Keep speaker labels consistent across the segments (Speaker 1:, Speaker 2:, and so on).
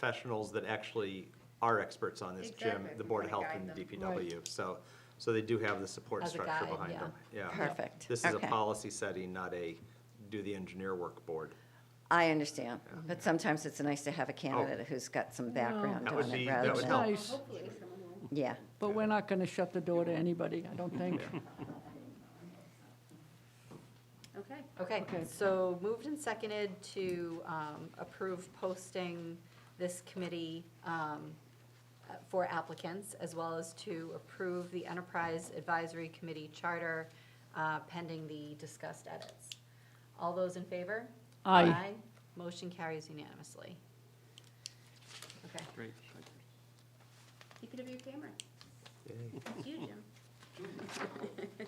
Speaker 1: professionals that actually are experts on this, Jim,
Speaker 2: Exactly,
Speaker 1: the
Speaker 2: we
Speaker 1: Board of
Speaker 2: wanna
Speaker 1: Health and the
Speaker 2: guide them.
Speaker 1: DPW. So, so they do have the support
Speaker 3: As a
Speaker 1: structure
Speaker 3: guide,
Speaker 1: behind
Speaker 3: yeah.
Speaker 1: them. Yeah.
Speaker 4: Perfect.
Speaker 1: This is a
Speaker 4: Okay.
Speaker 1: policy setting, not a do the engineer work board.
Speaker 4: I understand, but sometimes it's nice to have a candidate who's got some background
Speaker 1: That Oh, would
Speaker 4: on
Speaker 1: be-
Speaker 4: it
Speaker 1: that
Speaker 4: rather
Speaker 1: would
Speaker 3: It's
Speaker 1: help.
Speaker 4: than,
Speaker 3: nice,
Speaker 4: yeah.
Speaker 3: but we're not going to shut the door to anybody, I don't think.
Speaker 2: Okay.
Speaker 5: Okay,
Speaker 3: Okay.
Speaker 5: so moved and seconded to um, approve posting this committee um, uh, for applicants, as well as to approve the Enterprise Advisory Committee Charter uh, pending the discussed edits. All those in favor?
Speaker 3: Aye.
Speaker 5: Motion carries unanimously. Okay.
Speaker 6: Great.
Speaker 2: Keep it up your camera.
Speaker 1: Yay.
Speaker 2: It's you, Jim.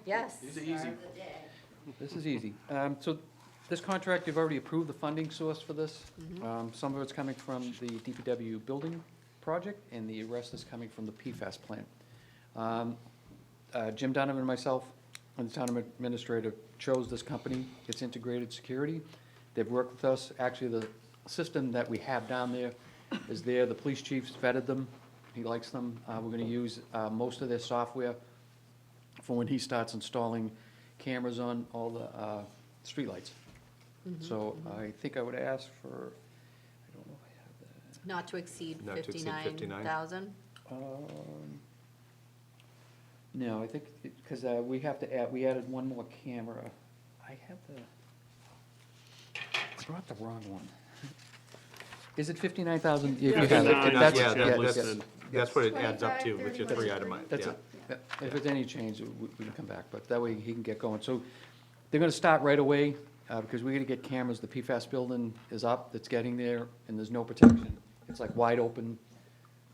Speaker 5: Yes.
Speaker 6: These are easy.
Speaker 2: The day.
Speaker 6: This is easy. Um, So this contract, you've already approved the funding source for this. Um, Some of it's coming from the DPW building project, and the rest is coming from the PFAS plant. Um, uh, Jim Donovan and myself and the town administrator chose this company. It's Integrated Security. They've worked with us. Actually, the system that we have down there is there. The police chief's vetted them. He likes them. Uh, We're going to use uh, most of their software for when he starts installing cameras on all the uh, streetlights. So I think I would ask for, I don't know if
Speaker 5: Not to exceed
Speaker 1: Not to exceed
Speaker 5: 59,000.
Speaker 6: I have that. Um, No, I think, because uh, we have to add, we added one more camera. I have the, I brought the wrong one. Is it 59,000? If you have it,
Speaker 1: 59,
Speaker 6: that's-
Speaker 1: yeah, that
Speaker 6: yes,
Speaker 1: lists
Speaker 6: yes.
Speaker 1: it. That's what it adds up
Speaker 2: 25,
Speaker 1: to with your
Speaker 2: 30,
Speaker 1: three item,
Speaker 2: 23.
Speaker 6: That's
Speaker 1: yeah.
Speaker 6: it. Yeah, If it's any change, we we can come back, but that way he can get going. So they're gonna start right away, uh, because we're gonna get cameras. The PFAS building is up, it's getting there, and there's no protection. It's like wide open,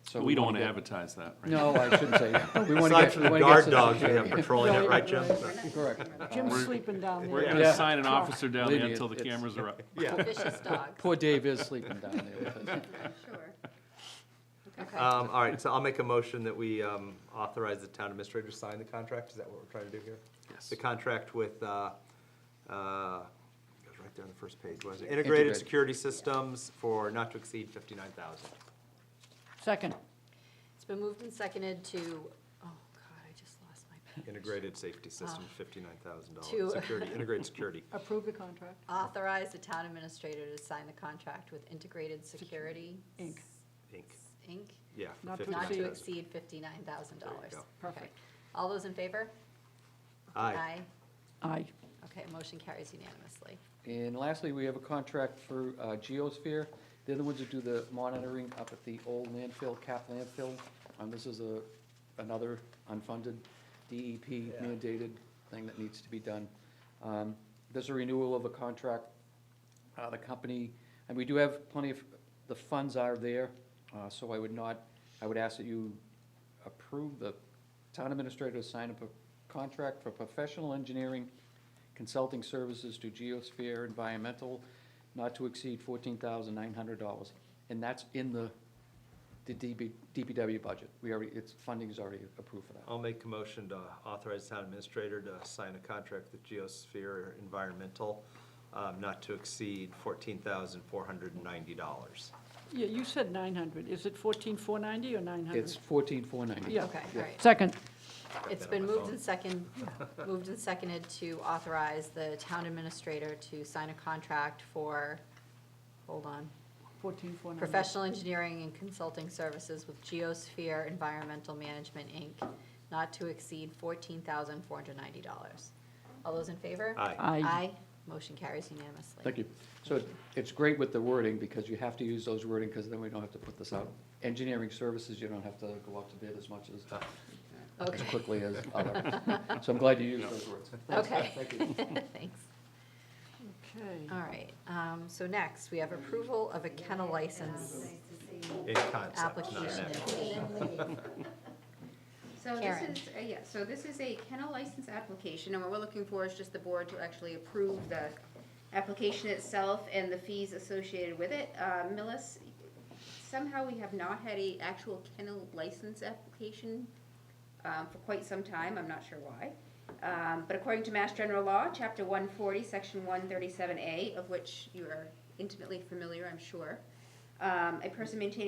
Speaker 6: so.
Speaker 7: We don't want to
Speaker 6: wanna
Speaker 7: advertise that,
Speaker 6: get-
Speaker 7: right?
Speaker 6: No, I shouldn't say that. We wanna
Speaker 1: Aside
Speaker 6: get-
Speaker 1: from
Speaker 6: we
Speaker 1: the
Speaker 6: wanna get
Speaker 1: guard
Speaker 6: some
Speaker 1: dogs we have
Speaker 6: security.
Speaker 1: patrolling it, right, Jim?
Speaker 6: Correct.
Speaker 3: Jim's sleeping down
Speaker 7: We're
Speaker 3: there.
Speaker 7: going
Speaker 6: Yeah.
Speaker 7: to sign an officer down there
Speaker 6: Believe me,
Speaker 7: until the
Speaker 6: it's-
Speaker 7: cameras are up.
Speaker 1: Yeah.
Speaker 5: Vicious dogs.
Speaker 6: Poor Dave is sleeping down there with us.
Speaker 2: Yeah, Sure.
Speaker 5: Okay.
Speaker 1: Um, all right, so I'll make a motion that we, um, authorize the town administrator to sign the contract, is that what we're trying to do here?
Speaker 6: Yes.
Speaker 1: The contract with, uh, uh, it was right there on the first page, was it? Integrated
Speaker 6: Integrated.
Speaker 1: Security Systems for not to exceed fifty-nine thousand.
Speaker 3: Second,
Speaker 5: It's been moved and seconded to, oh God, I just lost my page.
Speaker 1: Integrated Safety Systems,
Speaker 5: Ah.
Speaker 1: fifty-nine thousand
Speaker 5: To-
Speaker 1: dollars. Security, integrated security.
Speaker 3: approve the contract.
Speaker 5: Authorize the town administrator to sign the contract with Integrated Security.
Speaker 3: Inc.
Speaker 1: Inc.
Speaker 5: Inc.,
Speaker 1: Yeah, for
Speaker 3: Not to
Speaker 5: not to
Speaker 1: fifty-nine thousand.
Speaker 5: exceed fifty-nine thousand
Speaker 1: There you
Speaker 5: dollars.
Speaker 1: go.
Speaker 3: Perfect.
Speaker 5: All those in favor?
Speaker 1: Aye.
Speaker 3: Aye.
Speaker 5: Okay, motion carries unanimously.
Speaker 6: And lastly, we have a contract for uh, Geosphere. They're the ones who do the monitoring up at the old landfill, cap landfill. And this is a, another unfunded DEP mandated thing that needs to be done. Um, There's a renewal of a contract. Uh, The company, and we do have plenty of, the funds are there, uh, so I would not, I would ask that you approve the town administrator to sign up a contract for professional engineering consulting services to Geosphere Environmental, not to exceed fourteen thousand nine hundred dollars. And that's in the, the DB, DPW budget. We already, its funding is already approved for that.
Speaker 1: I'll make a motion to authorize the town administrator to sign a contract with Geosphere Environmental, um, not to exceed fourteen thousand four hundred and ninety dollars.
Speaker 3: Yeah, you said 900. Is it 14,490 or 900?
Speaker 6: It's fourteen four ninety.
Speaker 3: Uh-huh. Yeah.
Speaker 5: Okay, all right.
Speaker 3: Second,
Speaker 1: that
Speaker 5: It's
Speaker 1: on
Speaker 5: been
Speaker 1: my
Speaker 5: moved
Speaker 1: phone.
Speaker 5: and second, moved and seconded to authorize the town administrator to sign a contract for, hold on,
Speaker 3: 14,490.
Speaker 5: professional engineering and consulting services with Geosphere Environmental Management, Inc., not to exceed fourteen thousand four hundred ninety dollars. All those in favor?
Speaker 1: Aye.
Speaker 3: Aye.
Speaker 5: Motion carries unanimously.
Speaker 6: Thank you. So it- it's great with the wording, because you have to use those wording, because then we don't have to put this out. Engineering services, you don't have to go out to bid as much as, as
Speaker 5: Okay,
Speaker 6: quickly as others. So I'm glad you used those words.
Speaker 5: okay.
Speaker 6: Thank you.
Speaker 5: Thanks.
Speaker 3: Okay.
Speaker 5: All right, um, so next, we have approval of a kennel license
Speaker 1: In concept, not in
Speaker 5: application.
Speaker 1: act.
Speaker 2: So this
Speaker 5: Karen.
Speaker 2: is, uh, yeah, so this is a kennel license application, and what we're looking for is just the board to actually approve the application itself and the fees associated with it. Uh, Millis, somehow we have not had a actual kennel license application um, for quite some time, I'm not sure why. Um, But according to Mass General Law, Chapter 140, Section 137A, of which you are intimately familiar, I'm sure, um, a person maintaining